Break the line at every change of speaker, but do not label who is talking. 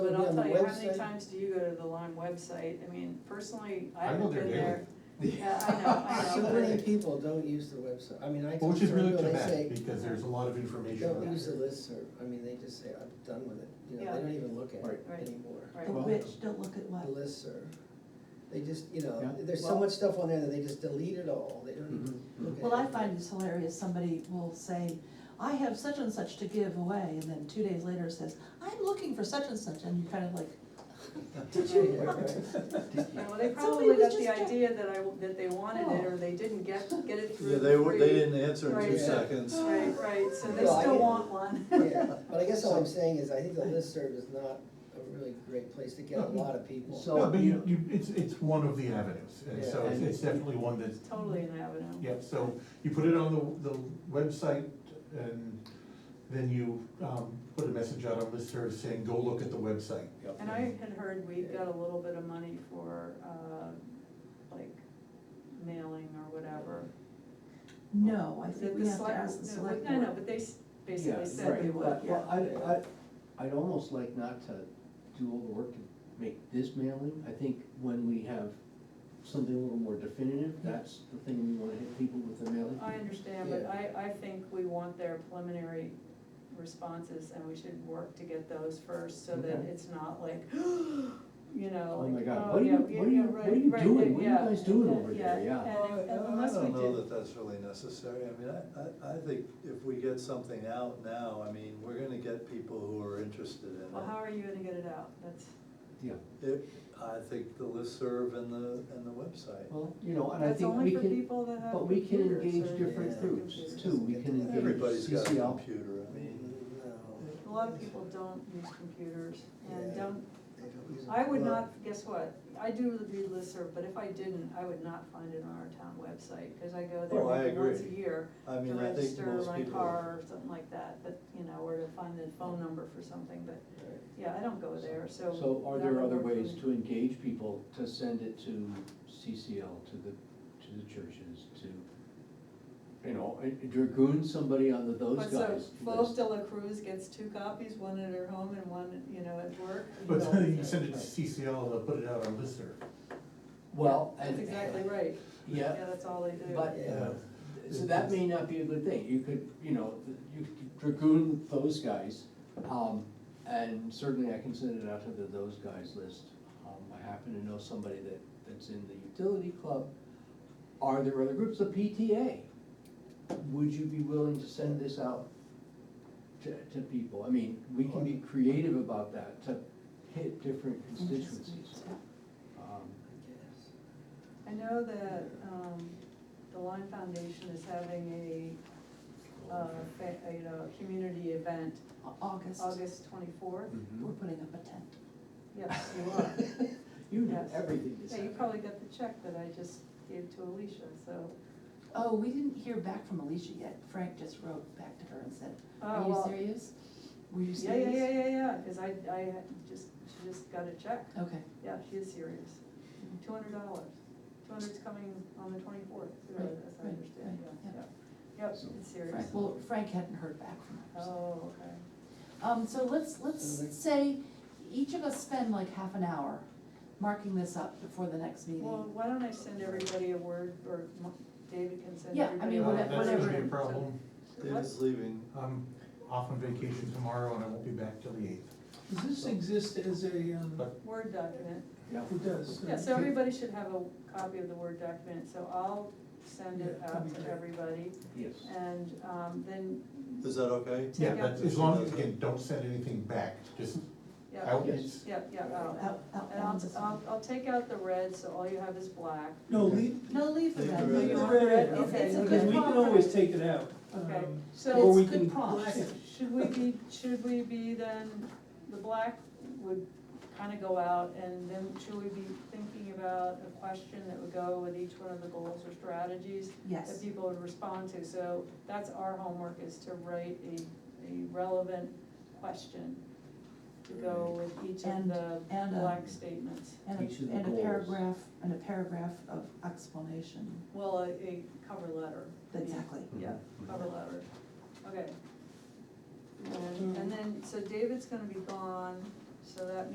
on the
tell you, how many
website?
times do you go to the Lyme website? I mean, personally, I
I go
haven't
there
been
daily.
there. Yeah, I know, I
So
know.
many people don't use the website, I mean, I talk
Which
to
is really
people,
too
they
bad,
say,
because there's a lot of information.
don't
out
use the
there.
listserv, I mean, they just say, I'm done with it, you know,
Yeah.
they don't even look at it
Right.
anymore.
Right.
The
Well-
which, don't look at
The
what,
listserv, they just, you know,
Yeah.
there's so
Well-
much stuff on there that they just delete it all, they don't even
Mhm.
look at it.
well, I find this hilarious, somebody will say, I have such and such to give away, and then two days later says, I'm looking for such and such, and you're kind of like, did you
Yeah,
not?
right.
You know, they
Somebody
probably
was
got the
just-
idea that I, that they wanted it, or they didn't get, get it through.
Yeah, they were, they
free.
didn't answer in two
Right.
seconds.
Right, right, so they
Well, I
still
didn't-
want one.
Yeah, But I guess all I'm saying is, I think the listserv is not a really great place to get a lot of people.
So-
No, but you, you, it's, it's one of the avenues, and so
Yeah.
it's, it's definitely one that's,
It's totally an avenue.
yep, so you put it on the, the website, and then you, um, put a message out on listserv saying, go look at the website.
And I had heard we got a little bit of money for, uh, like mailing or whatever.
No, I
The-
think
the
we have to
select-
ask the
no,
select
No, no,
board.
but they s- basically
Yeah,
said
right,
they would,
but-
yeah.
Well, I, I, I'd almost like not to do all the work to make this mailing, I think when we have something a little more definitive, that's the thing we wanna hit people with the mailing.
I understand, but I, I think we want their preliminary responses and we should work to get those first so that
Okay.
it's not like, you know,
Oh
like,
my God,
oh,
what are
yeah,
you-
yeah,
what are you-
yeah,
what are
right,
you
right,
doing? What are you
yeah,
guys doing over there? Yeah.
I
And if-
Oh, I
unless we
don't know
do,
that that's really necessary, I mean, I, I, I think if we get something out now, I mean, we're gonna get people who are interested in
well, how are
it.
you gonna get it out? That's,
Yeah,
It, I think the listserv and the, and the website.
well, you know, and I
that's
think we
only for
can,
people that have
but we can
computers
engage
or-
different
Yeah.
groups
computers.
too, we can engage
Everybody's got a
CCL.
computer, I mean,
Mm, No,
A lot of people don't use computers and
Yeah.
don't,
they don't use it.
I would
Well,
not, guess what? I do read listserv, but if I didn't, I would not find it on our town website, cause I go there
Oh, I
maybe once a
agree.
year
I
to
mean, I think
register
most
my
people,
car or something like that, but, you know, or to find the phone number for something, but,
right.
yeah, I don't go there, so.
So are
that
there
would
other
work for
ways
me.
to engage people, to send it to CCL, to the, to the churches, to, you know, and dragoon somebody on the those
But so,
guys
Flos
list?
de la Cruz gets two copies, one at her home and one, you know, at work. you
But
know.
then you send it to CCL, they'll put it out on listserv.
Well,
That's
and-
exactly right, yeah,
Yeah,
that's all they do.
but, uh,
Yeah.
so that may not be a good thing, you could, you know, you could dragoon those guys, um, and certainly I can send it out to the those guys list. Um, I happen to know somebody that, that's in the utility club, are there other groups, the PTA? Would you be willing to send this out to, to people? I mean, we can be creative about that, to hit different constituencies. Um,
I guess.
I know that, um, the Lime Foundation is having a, uh, fa- a, you know, community event,
Au- August,
August twenty-fourth,
Hmm?
we're putting up a tent.
yes, you are.
You know
Yes.
everything that's
Yeah, you
happening.
probably got the check that I just gave to Alicia, so.
Oh, we didn't hear back from Alicia yet, Frank just wrote back to her and said,
Oh,
are you
well,
serious? Were you
Yeah,
serious?
yeah, yeah, yeah, yeah, cause I, I had just, she just got a check,
Okay.
yeah, she is serious, two hundred dollars, two hundred's coming on the twenty-fourth,
Right,
as I
right,
understand,
right,
yeah,
yeah.
yeah. Yep,
So,
it's serious,
Frank, well, Frank hadn't heard back from her. so-
oh, okay.
Um, so let's, let's
Mhm.
say, each of us spend like half an hour marking this up before the next
Well,
meeting.
why don't I send everybody a word, or Mo- David can send
Yeah, I
everybody.
mean,
a
Uh,
word.
whate-
That's gonna be a
whatever.
problem,
David's leaving,
I'm off on vacation tomorrow and I won't be back till the eighth,
Does this exist as a, um,
but
Word document,
Yeah.
it does? uh,
yeah, so everybody should have a copy of the Word document, so I'll send it
Yeah, that'd
out
be
to
great.
everybody,
Yes.
and, um, then,
is that okay?
Yeah,
Take out-
but as long as, again, don't send anything back, just
yeah,
out,
Yes.
yeah, yeah, I'll-
Out- out-
And I'll, I'll, I'll take out the red, so all you have is black.
No, leave,
um,
No, leave the
Leave
red.
the red
You
in.
want
Leave the red in,
okay.
It's, it's a
because
good
we can
prompt.
always take it out.
Okay,
um,
so
or we
It's good
can
prompt.
black it.
should we be, should we be then, the black would kind of go out, and then should we be thinking about a question that would go with each one of the goals or strategies
Yes,
that people would respond to? So that's our homework, is to write a, a relevant question to go with each of
And-
the
and a-
black statements.
and a,
Each of the
and a
goals.
paragraph, and a paragraph of explanation,
Well, a, a cover letter. I mean.
exactly.
Yeah, cover letter, okay. And, and then, so David's gonna be gone, so that